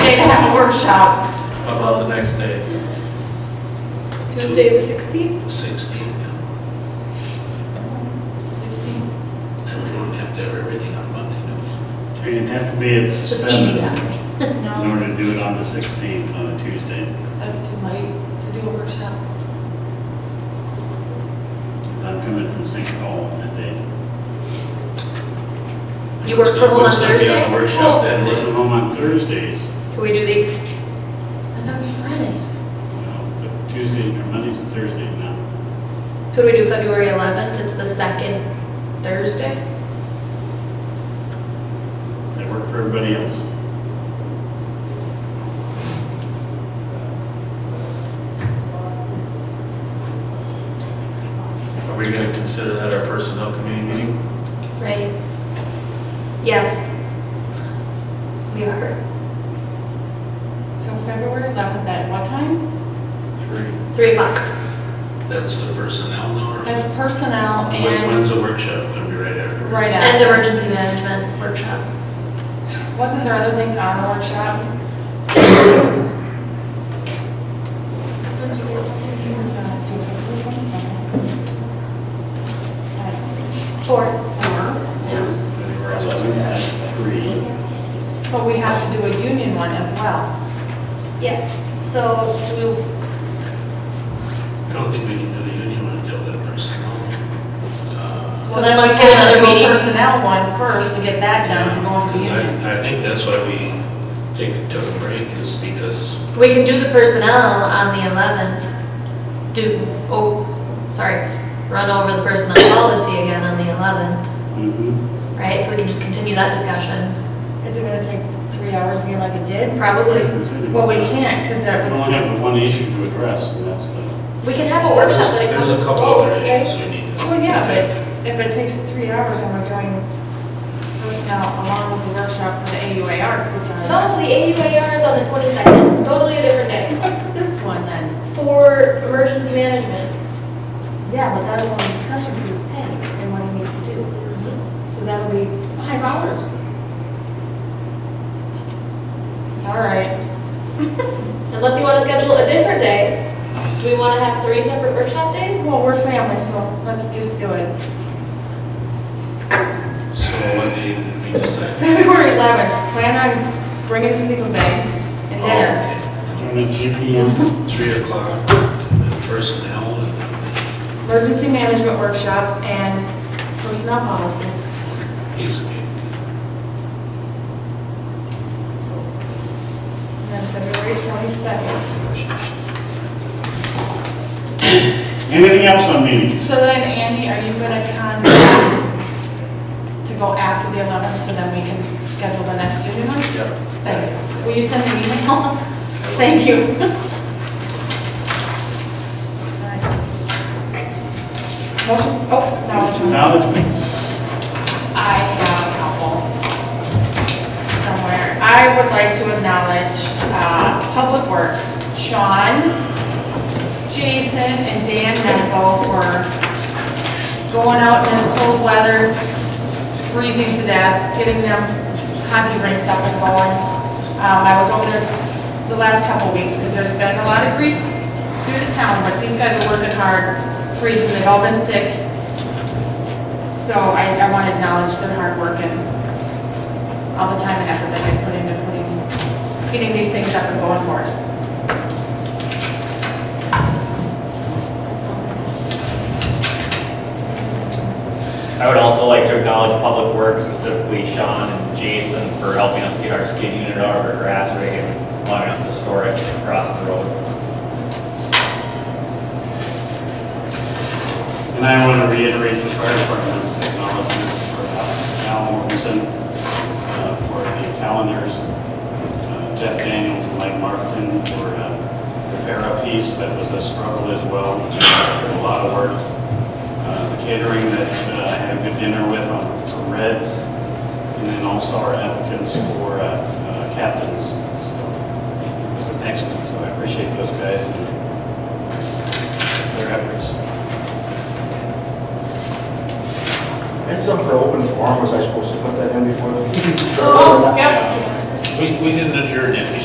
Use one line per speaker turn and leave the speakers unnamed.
workshop,
about the next day,
Tuesday the 16th?
16th. And we don't have to have everything on Monday, do we?
We didn't have to be at
It's just easy
seven
that way.
in order to do it on the 16th, on a Tuesday.
That's too late to do a workshop.
I'm coming from St. Paul that day.
You work from home on
Wouldn't that be
Thursday?
on workshop then,
I'm working
then?
home on Thursdays.
Can we do the,
I thought it was Fridays.
Well, th- Tuesday, or Mondays and Thursdays now.
could we do February 11th? It's the second Thursday?
That work for everybody else.
Are we gonna consider that our personnel committee meeting?
Right. Yes. We are.
So February 11th at what time?
Three.
3 o'clock.
That's the personnel, no?
That's personnel
When-
and,
When's the workshop? It'll be right after.
right
And
after.
emergency management workshop.
Wasn't there other things on the workshop?
Four.
Or else I would have three.
But we have to do a union one as well.
Yeah. So do we,
I don't think we can do the union until that personnel. uh,
So then let's get another
We'll do a
meeting.
Personnel one first to get that done to go on the union.
I, I think that's why we take, took a break is because
we can do the personnel on the 11th. Do, oh, sorry, run over the personnel policy again on the 11th,
Mhm.
right? So we can just continue that discussion.
Is it gonna take three hours again like it did?
Probably.
Well, we can't, because
We
that,
only have one issue to address, and that's the,
We can have a workshop that
There's
includes
a couple other
both, right?
issues we need to.
well, Oh, yeah, but if it takes three hours and we're doing personnel along with the workshop for the AUAR. we're fine.
No, the AUAR is on the 22nd, totally a different day.
What's this one then?
For emergency management,
Yeah, but that'll be a discussion because it's pay and what he needs to do. So that'll be five hours. All right.
unless you want to schedule a different day, do we want to have three separate workshop days?
Well, we're family, so let's just do it.
So when they, we decide.
February 11th, plan on bringing sleeping bag and dinner.
Turn at 3 PM.
Oh, okay. Three o'clock, and then personnel, and then
Emergency management workshop and personnel policy.
he's,
And then February 22nd.
Anything else on meetings?
So then, Andy, are you going to contact to go after the 11th so then we can schedule the next union one?
yeah.
Thank you. Will you send me an email? Thank you. Motion, oh, no, it's-
Acknowledgements.
I have a couple somewhere. I would like to acknowledge uh, Public Works, Sean, Jason, and Dan Menzel for going out in this cold weather, freezing to death, getting them hockey rinks up and going. Um, I was over there the last couple weeks because there's been a lot of grief through the town, but these guys are working hard, freezing, they've all been sick. So I, I want to acknowledge their hard work and all the time and effort that they put into putting, getting these things up and going for us.
I would also like to acknowledge Public Works, specifically Sean and Jason, for helping us get our skid unit out of our grass rig and allowing us to store it across the road.
And I want to reiterate the fire department's acknowledgements for Al Morrison, uh, for the calendars, uh, Jeff Daniels and Mike Martin for uh, the Farah piece, that was a struggle as well, a lot of work. Uh, The catering that uh, I had a good dinner with on for Reds, and then also our applicants for uh, uh, captains. So It was an excellent, so I appreciate those guys and their efforts.
That's something for open forum, was I supposed to put that in before? the-
Oh, yep.
We, we didn't adjourn yet.